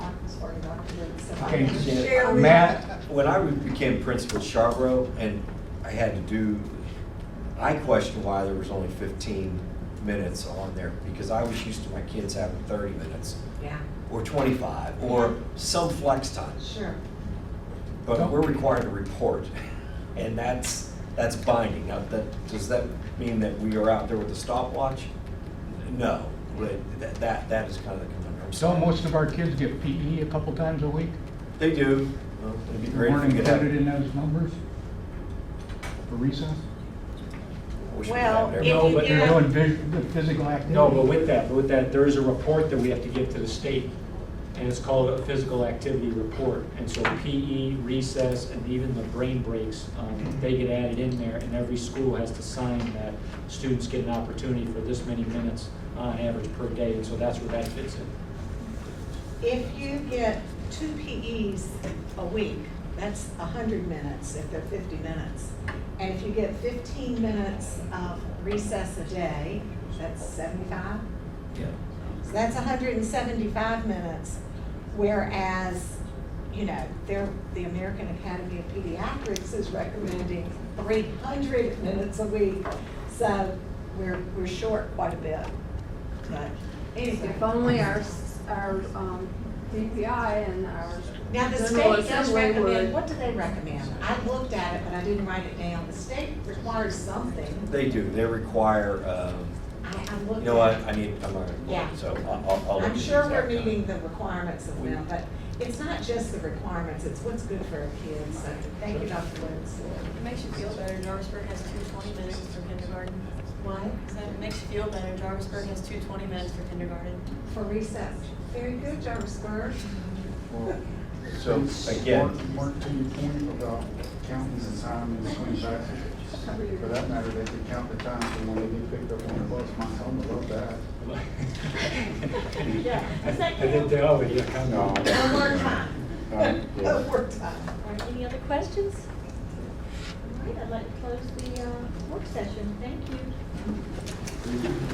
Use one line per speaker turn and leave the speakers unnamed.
can't see
Share
it.
with-
Matt,
When I became principal at Chartwell, and I had to do, I questioned why there was only fifteen minutes on there, because I was used to my kids having thirty minutes,
Yeah,
or twenty-five, or some flex time.
sure.
But we're required to report, and that's, that's binding. Now, that, does that mean that we are out there with a stopwatch? No, but that- that, that is kind of the conundrum.
don't most of our kids get PE a couple times a week?
They do. Well, It'd be
They
great if
weren't
we could have.
included in those numbers? For recess?
wish we could
Well,
have it every-
If
No,
you
but,
do-
They're doing phys- physical activity?
no, but with that, with that, there is a report that we have to give to the state, and it's called a physical activity report. And so PE, recess, and even the brain breaks, um, they get added in there, and every school has to sign that students get an opportunity for this many minutes on average per day, and so that's where that fits in.
If you get two PEs a week, that's hundred minutes if they're fifty minutes. And if you get fifteen minutes of recess a day, that's seventy-five?
Yeah.
So that's hundred and seventy-five minutes, whereas, you know, they the American Academy of Pediatrics is recommending three hundred minutes a week. So we're, we're short quite a bit, but anyway.
If only our, s- our um, DPI and our.
Now, the
General
state does
Assembly
recommend,
would-
what do they recommend? I looked at it, but I didn't write it down. The state requires something.
They do. They require, um,
I, I
you
looked
know what,
at
I
it.
need, I'm
Yeah.
gonna, so I'll- I'll, I'll.
I'm
look at
sure
the
we're
exact
meeting
time.
the requirements of them, but it's not just the requirements, it's what's good for our kids. So thank you, Dr. Woods.
It makes you feel better, Jarvisburg has two twenty minutes for kindergarten.
What?
So it makes you feel better, Jarvisburg has two twenty minutes for kindergarten.
For recess. Very good, Jarvis Burr.
So again,
Mark- Mark, to your point about counting the time and swing back, for that matter, they could count the time from when they get picked up on the bus, my son would love that.
Yeah. Is that
I think they already account.
No.
No more time.
Uh, yeah.
No more time.
All right, any other questions? All right, I'd like to close the uh, work session. Thank you.